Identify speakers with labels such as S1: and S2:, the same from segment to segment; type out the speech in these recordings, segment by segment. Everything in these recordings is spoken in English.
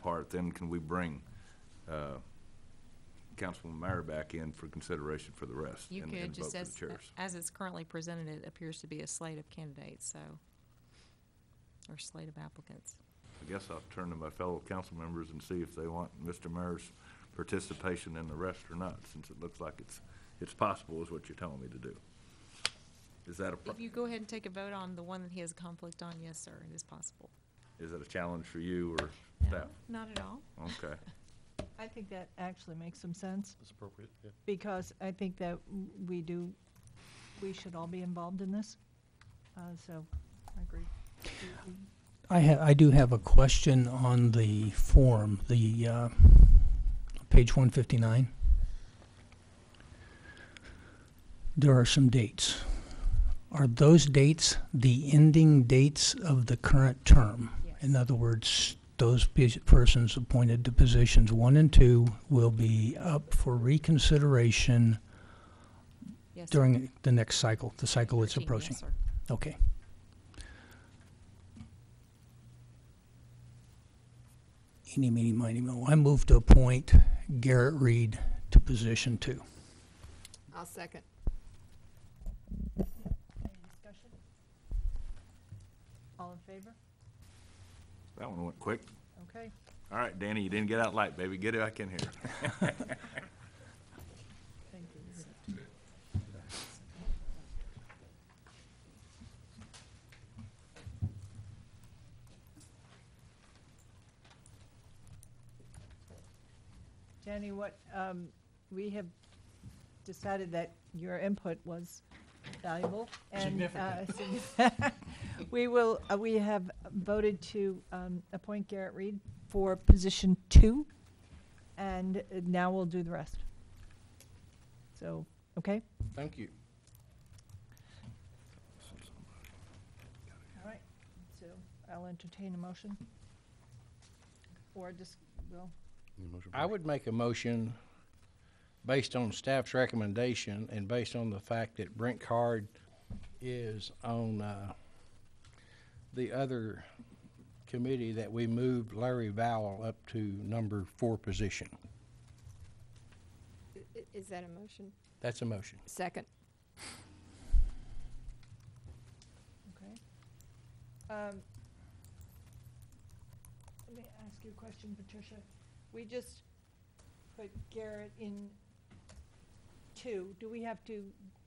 S1: part, then can we bring uh, Councilman Meyer back in for consideration for the rest?
S2: You
S1: and-
S2: could,
S1: and vote
S2: just
S1: for the
S2: as,
S1: chairs?
S2: as it's currently presented, it appears to be a slate of candidates, so, or slate of applicants.
S1: I guess I'll turn to my fellow council members and see if they want Mr. Meyer's participation in the rest or not, since it looks like it's, it's possible is what you're telling me to do. Is that a, pro-
S2: If you go ahead and take a vote on the one that he has a conflict on, yes, sir, it is possible.
S1: is that a challenge for you or
S2: No,
S1: staff?
S2: Not at all.
S1: Okay.
S3: I think that actually makes some sense,
S4: That's appropriate, yeah.
S3: because I think that w- we do, we should all be involved in this. Uh, So, I agree. We- we-
S5: I ha- I do have a question on the form, the, uh, page one fifty-nine. There are some dates. Are those dates the ending dates of the current term? In other words, those pe- persons appointed to positions one and two will be up for reconsideration
S2: Yes. sir.
S5: during the next cycle, the cycle it's
S2: Thirteen, yes,
S5: approaching?
S2: sir.
S5: Okay. Eeny, meeny, miny, moe. I move to appoint Garrett Reed to position two.
S6: I'll second.
S3: Any discussion? All in favor?
S1: That one went quick.
S3: Okay.
S1: All right, Danny, you didn't get out light, baby. Get it back in here.
S3: Thank you. Jenny, what, um, we have decided that your input was valuable and, uh, significant. We will, uh, we have voted to, um, appoint Garrett Reed for position two, and uh, now we'll do the rest. So, okay?
S4: Thank you.
S3: All right, so I'll entertain a motion. Or just, well,
S4: I would make a motion based on staff's recommendation and based on the fact that Brent Card is on, uh, the other committee that we moved Larry Vowell up to number four position.
S6: I- i- Is that a motion?
S4: That's a motion.
S6: Second.
S3: okay. Um, Let me ask you a question, Patricia. We just put Garrett in two. Do we have to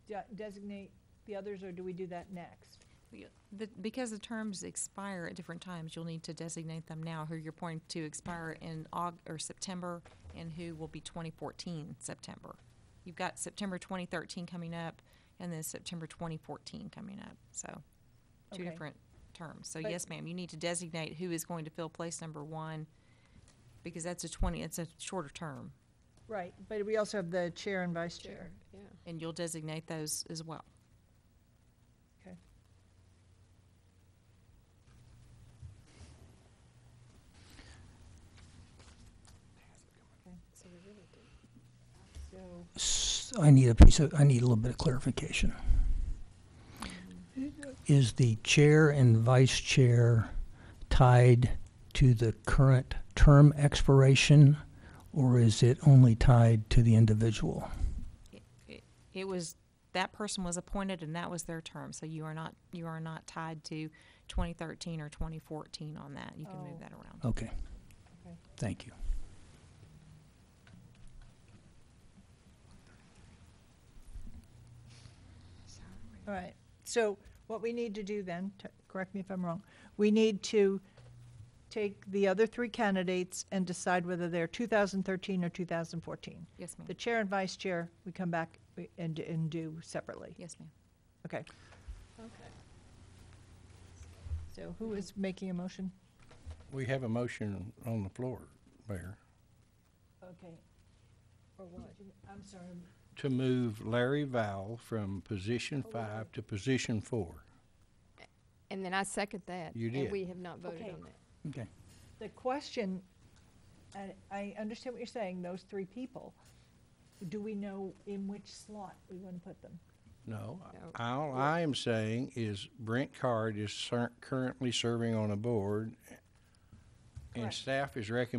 S3: de- designate the others, or do we do that next?
S2: We- The, because the terms expire at different times, you'll need to designate them now, who you're appointing to expire in Aug, or September, and who will be twenty fourteen September. You've got September twenty thirteen coming up, and then September twenty fourteen coming up, so, two
S3: Okay.
S2: different terms. So
S3: But-
S2: yes, ma'am, you need to designate who is going to fill place number one, because that's a twenty, it's a shorter term,
S3: Right, but we also have the chair and vice
S6: Chair.
S3: chair.
S6: Yeah.
S2: and you'll designate those as well.
S3: Okay.
S6: So we really do.
S3: So,
S5: S- I need a piece of, I need a little bit of clarification. Is the chair and vice chair tied to the current term expiration, or is it only tied to the individual?
S2: it- it was, that person was appointed and that was their term, so you are not, you are not tied to twenty thirteen or twenty fourteen on that, you can
S3: Oh.
S2: move that around.
S5: Okay.
S3: Okay.
S5: Thank you.
S3: all right. So what we need to do then, t- correct me if I'm wrong, we need to take the other three candidates and decide whether they're 2013 or 2014.
S2: Yes, ma'am,
S3: The chair and vice chair, we come back we- and, and do separately.
S2: yes, ma'am.
S3: Okay.
S6: Okay.
S3: So who is making a motion?
S4: We have a motion on the floor, Mayor,
S3: Okay. Or what? I'm sorry.
S4: to move Larry Vowell from position five to position four.
S6: And then I second that.
S4: You
S6: And
S4: did.
S6: we have not voted
S3: Okay.
S6: on that.
S5: Okay.
S3: The question, I, I understand what you're saying, those three people. Do we know in which slot we want to put them?
S4: No, I-
S6: No.
S4: all I am saying is Brent Card is cer- currently serving on a board, and
S3: Correct.
S4: staff is recommending